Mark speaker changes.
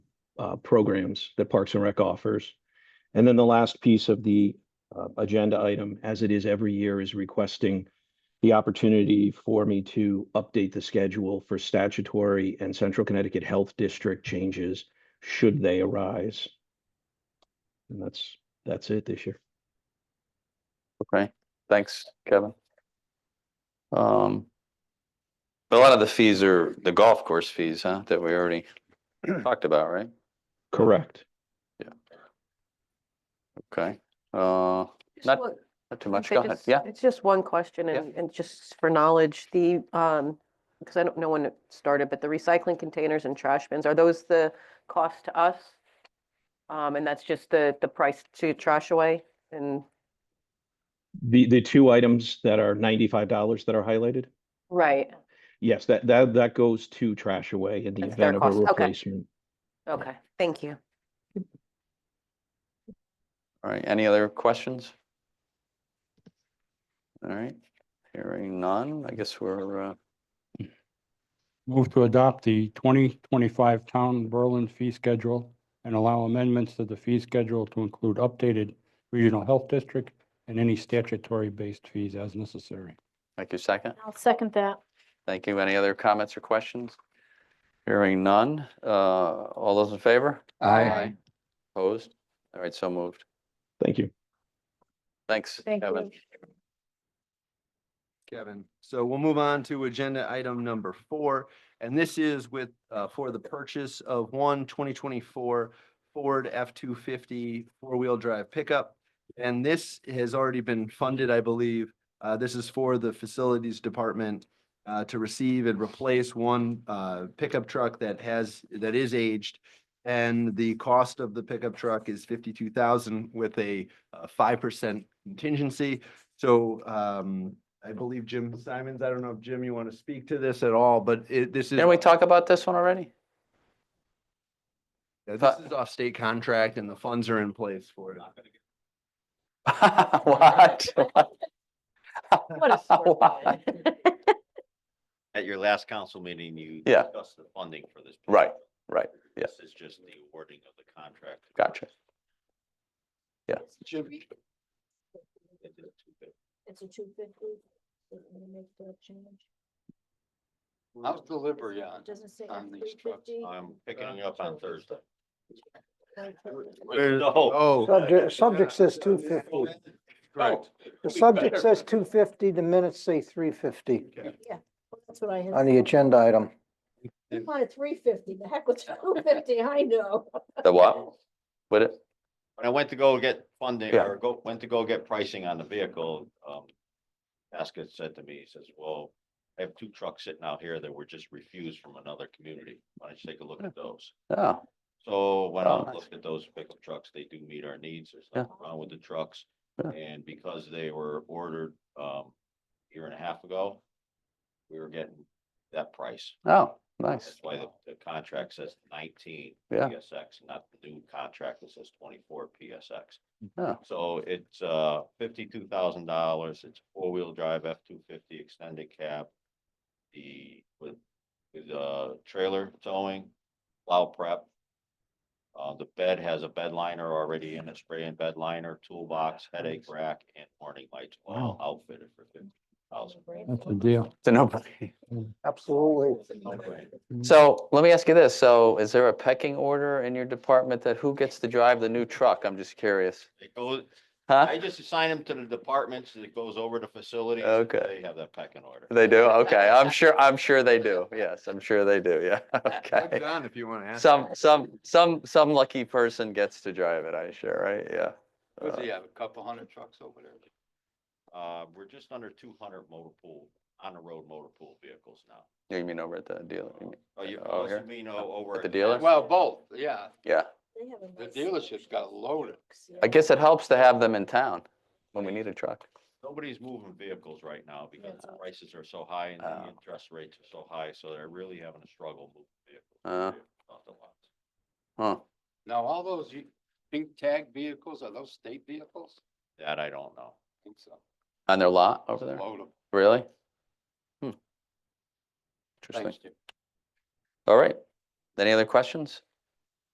Speaker 1: uh, programs that Parks and Rec offers. And then the last piece of the uh, agenda item, as it is every year, is requesting the opportunity for me to update the schedule for statutory and Central Connecticut Health District changes should they arise. And that's, that's it this year.
Speaker 2: Okay, thanks, Kevin. Um. but A lot of the fees are the golf course fees, huh, that we already talked about, right?
Speaker 1: Correct.
Speaker 2: Okay, uh,
Speaker 3: Just
Speaker 2: not,
Speaker 3: one-
Speaker 2: not too much,
Speaker 3: Okay,
Speaker 2: go ahead,
Speaker 3: just-
Speaker 2: yeah,
Speaker 3: It's just one question
Speaker 2: Yeah.
Speaker 3: and, and just for knowledge, the, um, because I don't know when it started, but the recycling containers and trash bins, are those the cost to us? Um, and that's just the, the price to trash away and,
Speaker 1: The, the two items that are ninety-five dollars that are highlighted?
Speaker 3: right,
Speaker 1: Yes, that, that, that goes to trash away in the
Speaker 3: That's their
Speaker 1: event of a
Speaker 3: cost, okay.
Speaker 1: replacement.
Speaker 3: okay, thank you.
Speaker 2: all right, any other questions? All right, hearing none, I guess we're, uh,
Speaker 4: Move to adopt the twenty twenty-five Town Berlin fee schedule and allow amendments to the fee schedule to include updated regional health district and any statutory-based fees as necessary.
Speaker 2: thank you, second,
Speaker 5: I'll second that.
Speaker 2: thank you, any other comments or questions? Hearing none, uh, all those in favor?
Speaker 5: Aye.
Speaker 2: Opposed, all right, so moved,
Speaker 1: Thank you.
Speaker 2: thanks,
Speaker 5: Thank
Speaker 2: Kevin.
Speaker 5: you.
Speaker 6: Kevin. So we'll move on to agenda item number four. And this is with, uh, for the purchase of one 2024 Ford F-250 four-wheel drive pickup. And this has already been funded, I believe. Uh, This is for the Facilities Department uh, to receive and replace one uh, pickup truck that has, that is aged. And the cost of the pickup truck is 52,000 with a uh, 5% contingency. So um, I believe Jim Simons, I don't know if Jim, you want to speak to this at all, but it, this is,
Speaker 2: Didn't we talk about this one already?
Speaker 6: this is off state contract and the funds are in place for it.
Speaker 2: What?
Speaker 5: What a
Speaker 2: Why?
Speaker 5: sore guy.
Speaker 7: At your last council meeting, you
Speaker 2: Yeah.
Speaker 7: discussed the funding for this.
Speaker 2: Right,
Speaker 7: project.
Speaker 2: right, yeah.
Speaker 7: This is just the awarding of the contract.
Speaker 2: Gotcha. Yeah.
Speaker 6: Jim,
Speaker 5: It's a two fifty.
Speaker 8: How's delivery on?
Speaker 5: Doesn't say
Speaker 8: on these trucks?
Speaker 5: F350.
Speaker 7: I'm picking it up on Thursday.
Speaker 6: Where-
Speaker 7: No.
Speaker 6: Oh,
Speaker 9: Subject, subject says two fifty.
Speaker 6: correct.
Speaker 9: The subject says two fifty, the minutes say three fifty
Speaker 5: Well, That's what I had.
Speaker 9: on the agenda item.
Speaker 5: We wanted three fifty, the heck with two fifty, I know.
Speaker 2: The what? Would it?
Speaker 7: When I went to go get funding
Speaker 2: Yeah.
Speaker 7: or go, went to go get pricing on the vehicle, um, Basket said to me, he says, well, I have two trucks sitting out here that were just refused from another community. Why don't you take a look at those?
Speaker 2: Oh,
Speaker 7: So when
Speaker 2: Oh,
Speaker 7: I
Speaker 2: nice.
Speaker 7: looked at those pickup trucks, they do meet our needs. There's
Speaker 2: Yeah.
Speaker 7: nothing wrong with the trucks.
Speaker 2: Yeah.
Speaker 7: And because they were ordered, um, a year and a half ago, we were getting that price.
Speaker 2: oh, nice.
Speaker 7: That's why the, the contract says nineteen
Speaker 2: Yeah.
Speaker 7: PSX, not the new contract that says twenty-four
Speaker 2: Yeah.
Speaker 7: PSX. So it's, uh, fifty-two thousand dollars. It's four-wheel drive F two fifty extended cab. The, with, with, uh, trailer towing, plow prep. Uh, the bed has a bed liner already in it, spray and bed liner, toolbox, headache rack, and warning lights, all outfitted for fifty thousand.
Speaker 4: That's a deal.
Speaker 2: It's a no-brainer.
Speaker 9: Absolutely.
Speaker 2: So let me ask you this. So is there a pecking order in your department that who gets to drive the new truck? I'm just curious.
Speaker 7: It goes, I
Speaker 2: Huh?
Speaker 7: just assign them to the departments that goes over to facilities.
Speaker 2: Okay.
Speaker 7: They have that pecking order.
Speaker 2: They do? Okay, I'm sure, I'm sure they do. Yes, I'm sure they do. Yeah,
Speaker 6: Doug
Speaker 2: okay.
Speaker 6: John, if you want to ask.
Speaker 2: Some, some, some, some lucky person gets to drive it, I sure, right? Yeah.
Speaker 8: Does
Speaker 2: Uh,
Speaker 8: he have a couple hundred trucks over there?
Speaker 7: Uh, we're just under two hundred motor pool, on the road motor pool vehicles now.
Speaker 2: You mean over at the dealer? you mean-
Speaker 7: Oh, you,
Speaker 2: Oh, here?
Speaker 7: also mean o- over.
Speaker 2: the dealer?
Speaker 8: Well, both, yeah.
Speaker 2: Yeah,
Speaker 5: They have a
Speaker 8: The
Speaker 5: nice-
Speaker 8: dealership's got loaded.
Speaker 2: I guess it helps to have them in town when we need a truck.
Speaker 7: Nobody's moving vehicles right now because the
Speaker 5: Yeah.
Speaker 7: prices are so high and
Speaker 2: Oh.
Speaker 7: the interest rates are so high, so they're really having a struggle moving vehicles.
Speaker 2: Uh.
Speaker 7: Off the lots.
Speaker 2: Huh,
Speaker 8: Now, all those u- pink tag vehicles, are those state vehicles?
Speaker 7: That I don't know.
Speaker 8: I think so.
Speaker 2: on their lot over there?
Speaker 8: Load 'em.
Speaker 2: Really? Hmm. Interesting.
Speaker 8: Thanks, Jim.
Speaker 2: All right. Any other questions?